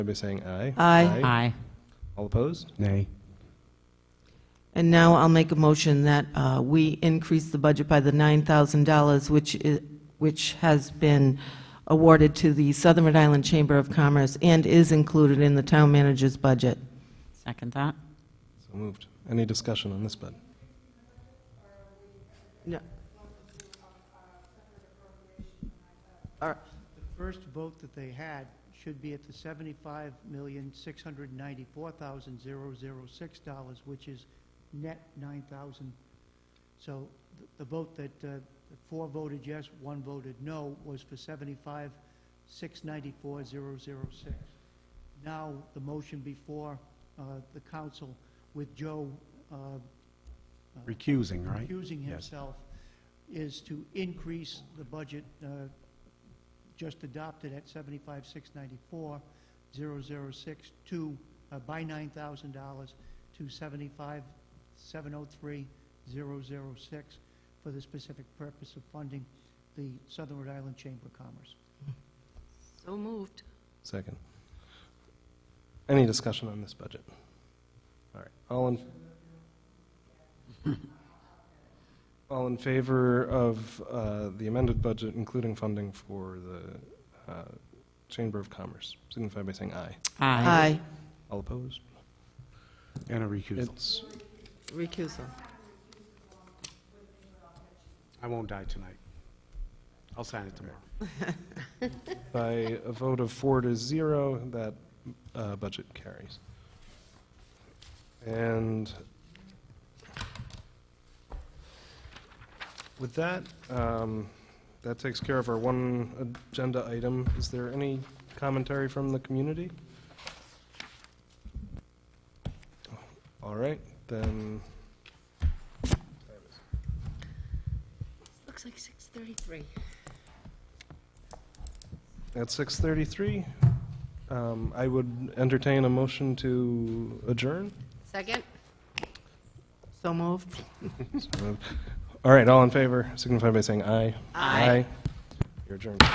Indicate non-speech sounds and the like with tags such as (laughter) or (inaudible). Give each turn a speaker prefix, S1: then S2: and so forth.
S1: by saying aye.
S2: Aye.
S3: Aye.
S1: All opposed?
S4: Nay.
S2: And now I'll make a motion that uh, we increase the budget by the $9,000, which is, which has been awarded to the Southern Rhode Island Chamber of Commerce and is included in the town manager's budget.
S3: Second that.
S1: So moved. Any discussion on this bid?
S2: No.
S5: The first vote that they had should be at the seventy-five million, six hundred ninety-four thousand, zero, zero, six dollars, which is net nine thousand. So th- the vote that, uh, the four voted yes, one voted no, was for seventy-five, six ninety-four, zero, zero, six. Now, the motion before, uh, the council with Joe, uh, uh,
S4: Recusing, right?
S5: accusing
S4: Yes.
S5: himself is to increase the budget uh, just adopted at 75,694, 006 to, uh, by $9,000 to 75,703, 006 for the specific purpose of funding the Southern Rhode Island Chamber of Commerce.
S2: So moved.
S1: Second. Any discussion on this budget? All right, all in... (laughs) All in favor of uh, the amended budget, including funding for the uh, Chamber of Commerce, signify by saying aye.
S2: Aye.
S1: All opposed?
S4: And a recusal.
S1: It's,
S2: Recusal.
S4: I won't die tonight. I'll sign it tomorrow.
S1: by a vote of four to zero, that uh, budget carries. And with that, um, that takes care of our one agenda item. Is there any commentary from the community? All right, then,
S6: Looks like 6:33.
S1: at 6:33, um, I would entertain a motion to adjourn.
S6: Second?
S2: So moved.
S1: So moved. All right, all in favor, signify by saying aye.
S2: Aye.
S1: You're adjourned.